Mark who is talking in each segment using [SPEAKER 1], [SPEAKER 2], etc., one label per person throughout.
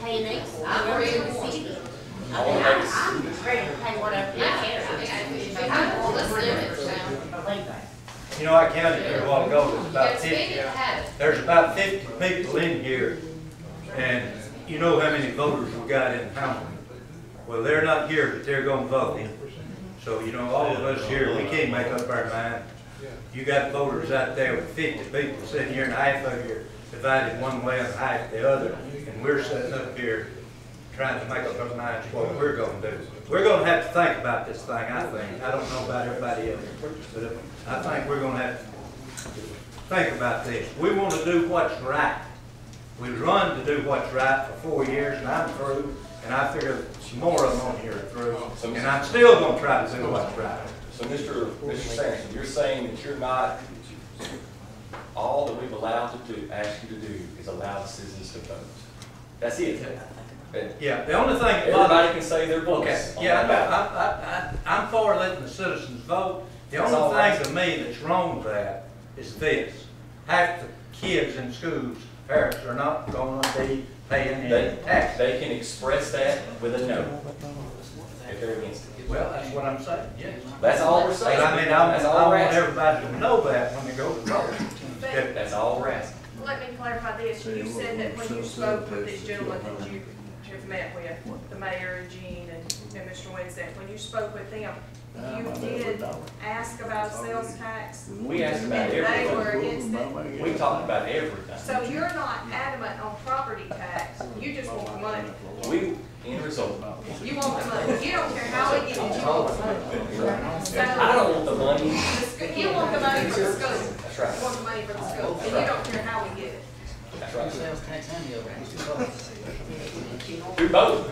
[SPEAKER 1] pay next, I'm ready to see it. I mean, I- I'm ready to pay whatever they care. But wait,
[SPEAKER 2] You know, I counted here a while ago, there's about
[SPEAKER 3] Speaking
[SPEAKER 2] fifty,
[SPEAKER 3] of habit,
[SPEAKER 2] there's about fifty people in here. And you know how many voters we got in Hamilton? Well, they're not here, but they're gonna vote. So, you know, all of us here, we can't make up our mind. You got voters out there with fifty people sitting here and half of you are divided one way and half the other. And we're sitting up here trying to make up our minds what we're gonna do. We're gonna have to think about this thing, I think. I don't know about everybody else, but I think we're gonna have to think about this. We want to do what's right. We run to do what's right for four years, and I'm through, and I figure some more of them on here are through, and I'm still gonna try to do what's right.
[SPEAKER 4] So Mr. Mr. Sampson, you're saying that you're not, all that we've allowed to do, asked you to do is allow the citizens to vote. That's it. And
[SPEAKER 2] Yeah, the only thing that bothers
[SPEAKER 4] Everybody can say their
[SPEAKER 2] Okay,
[SPEAKER 4] votes on
[SPEAKER 2] yeah,
[SPEAKER 4] that
[SPEAKER 2] no,
[SPEAKER 4] ballot.
[SPEAKER 2] I, I, I, I'm for letting the citizens vote. The
[SPEAKER 4] That's all
[SPEAKER 2] only
[SPEAKER 4] right.
[SPEAKER 2] thing to me that's wrong with that is this. Half the kids in schools, parents are not gonna be paying
[SPEAKER 4] They,
[SPEAKER 2] any taxes.
[SPEAKER 4] they can express that with a no. If they're against it.
[SPEAKER 2] Well, that's what I'm saying, yes.
[SPEAKER 4] That's all we're saying.
[SPEAKER 2] But I mean, I,
[SPEAKER 4] That's
[SPEAKER 2] I
[SPEAKER 4] all we're
[SPEAKER 2] want
[SPEAKER 4] asking.
[SPEAKER 2] everybody to know that when they go to vote. That-
[SPEAKER 4] That's all we're asking.
[SPEAKER 5] Let me clarify this, you said that when you spoke with this gentleman that you have met with, the mayor and Gene and, and Mr. Winston, when you spoke with them,
[SPEAKER 6] Ah,
[SPEAKER 5] you did ask about sales tax,
[SPEAKER 4] We asked about
[SPEAKER 5] they
[SPEAKER 4] everything.
[SPEAKER 5] were against it.
[SPEAKER 4] We talked about everything.
[SPEAKER 5] So you're not adamant on property tax, you just want the money,
[SPEAKER 4] We, end result,
[SPEAKER 5] you want the money, you don't care how it gets, you want the money.
[SPEAKER 4] I
[SPEAKER 5] So,
[SPEAKER 4] don't want the money.
[SPEAKER 5] the sc- you want the money for the school,
[SPEAKER 4] That's
[SPEAKER 5] you want
[SPEAKER 4] right.
[SPEAKER 5] the money for the school, and you don't care how we get it.
[SPEAKER 4] That's right.
[SPEAKER 7] Sales tax and the other.
[SPEAKER 4] Do both.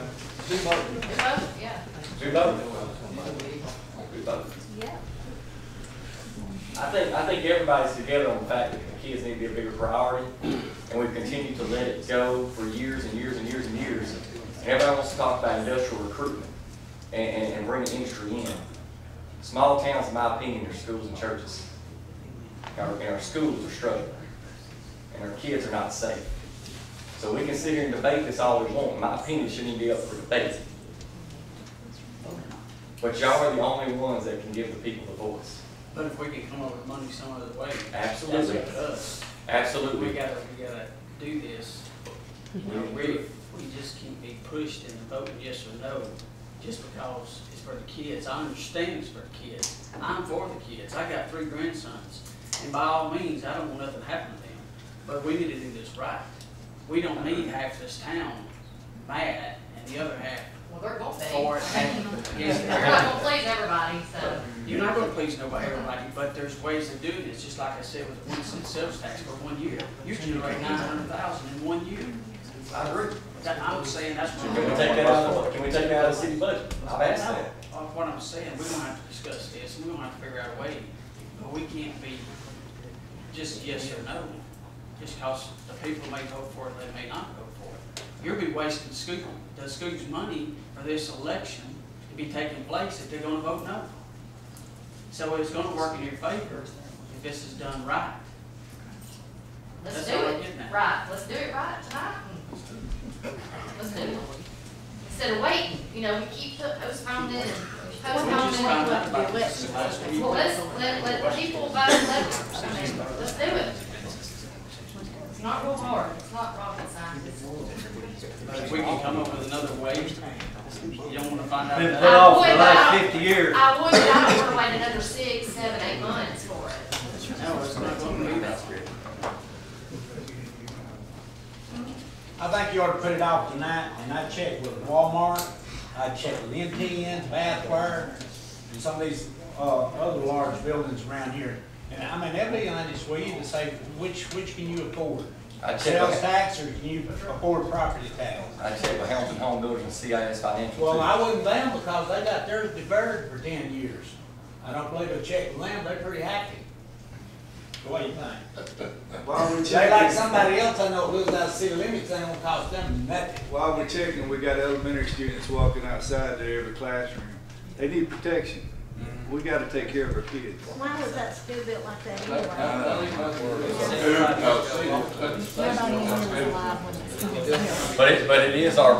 [SPEAKER 3] yeah.
[SPEAKER 4] Do both. Do both.
[SPEAKER 1] Yeah.
[SPEAKER 4] I think, I think everybody's together on the fact that the kids need to be a bigger priority, and we've continued to let it go for years and years and years and years. And everybody wants to talk about industrial recruitment and, and, and bringing industry in. Small towns, in my opinion, are schools and churches. Our, and our schools are struggling, and our kids are not safe. So we can sit here and debate this all we want, in my opinion, it shouldn't even be up for debate. But y'all are the only ones that can give the people the voice.
[SPEAKER 7] But if we could come up with money some other way.
[SPEAKER 4] Absolutely.
[SPEAKER 7] That's up to us. We
[SPEAKER 4] Absolutely.
[SPEAKER 7] gotta, we gotta do this. We, we just can't be pushed into voting yes or no, just because it's for the kids. I understand it's for the kids. I'm for the kids. I got three grandsons, and by all means, I don't want nothing to happen to them. But we need to do this right. We don't need half this town mad and the other half
[SPEAKER 3] Well, they're gonna
[SPEAKER 7] for it.
[SPEAKER 3] They're
[SPEAKER 7] Yes.
[SPEAKER 3] not gonna please everybody, so.
[SPEAKER 7] You're not gonna please nobody, everybody, but there's ways of doing it, It's just like I said, with the one cent sales tax for one year. You generate nine hundred thousand in one year.
[SPEAKER 4] I agree.
[SPEAKER 7] That, I'm saying that's what.
[SPEAKER 4] Can we take that out of, can we take that out of the city budget? I've asked that.
[SPEAKER 7] Uh, What I'm saying, we're gonna have to discuss this, we're gonna have to figure out a way, but we can't be just yes or no. Just cause the people may vote for it, they may not vote for it. You'll be wasting school, the school's money for this election to be taking place if they're gonna vote no. So it's gonna work in your favor if this is done right.
[SPEAKER 3] Let's
[SPEAKER 7] That's
[SPEAKER 3] do
[SPEAKER 7] all I'm
[SPEAKER 3] it
[SPEAKER 7] getting at.
[SPEAKER 3] right, let's do it right tonight. Let's do it. Instead of waiting, you know, we keep po- postponing and
[SPEAKER 7] We just
[SPEAKER 3] postponing.
[SPEAKER 7] found out about this last week.
[SPEAKER 3] Well, let's, let, let people vote, let, I mean, let's do it. It's not real hard, it's not rocket science.
[SPEAKER 7] But if we can come up with another way, you don't wanna find out.
[SPEAKER 2] Been
[SPEAKER 7] that-
[SPEAKER 2] put off for the last fifty years.
[SPEAKER 3] I would, but I don't wanna wait another six, seven, eight months for it.
[SPEAKER 7] No, it's not gonna be that.
[SPEAKER 6] I think you ought to put it off tonight, and I checked with Walmart, I checked with MTN, Bathware, and some of these, uh, other large buildings around here. And I mean, they'll be honest with you to say, which, which can you afford?
[SPEAKER 4] I checked,
[SPEAKER 6] Sales
[SPEAKER 4] with-
[SPEAKER 6] tax, or can you afford property tax?
[SPEAKER 4] I checked with Hamilton Home Builders and CIS Financial.
[SPEAKER 6] Well,
[SPEAKER 4] too.
[SPEAKER 6] I wouldn't blame them because they got theirs deferred for ten years. I don't believe they checked with them, they're pretty happy. What do you think?
[SPEAKER 8] While we're
[SPEAKER 6] They like
[SPEAKER 8] checking,
[SPEAKER 6] somebody else I know lives out of city limits, they don't cost them nothing.
[SPEAKER 8] while we're checking, we got elementary students walking outside their every classroom. They need protection. We gotta take care of our kids.
[SPEAKER 1] Why was that still built like that anyway?
[SPEAKER 8] Uh,
[SPEAKER 1] Nobody was alive when it
[SPEAKER 4] But it, but it is our